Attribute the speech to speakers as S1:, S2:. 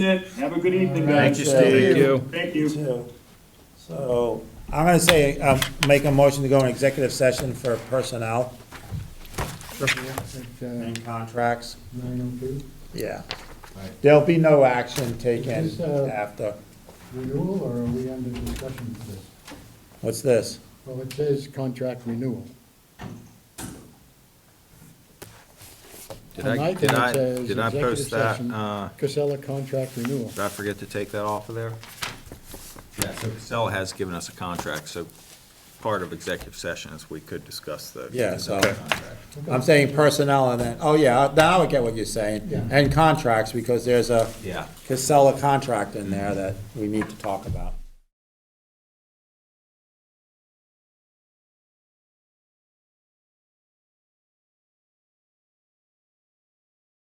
S1: That's it. Have a good evening,
S2: Thank
S1: guys.
S2: you,
S3: Thank
S2: Steve.
S3: you.
S1: Thank you.
S3: too. So, I'm gonna say, um, make a motion to go in executive session for personnel
S4: Nine
S3: and contracts.
S4: uh, oh two,
S3: Yeah.
S4: Right.
S3: There'll be no action
S4: Is
S3: taken
S4: this, uh,
S3: after.
S4: renewal, or are we under discussion for this?
S3: What's this?
S4: Well, it says contract renewal.
S2: Did
S4: On
S2: I,
S4: my
S2: did
S4: thing, it
S2: I,
S4: says
S2: did I post
S4: executive
S2: that?
S4: session.
S2: Uh,
S4: Casella contract renewal.
S2: Did I forget to take that off of there? Yeah, so Casella has given us a contract, so part of executive session is we could discuss the
S3: Yeah, so-
S2: Casella contract.
S3: I'm saying personnel and then, oh yeah, now I get what you're saying.
S4: Yeah.
S3: And contracts, because there's a
S2: Yeah.
S3: Casella contract in there that we need to talk about.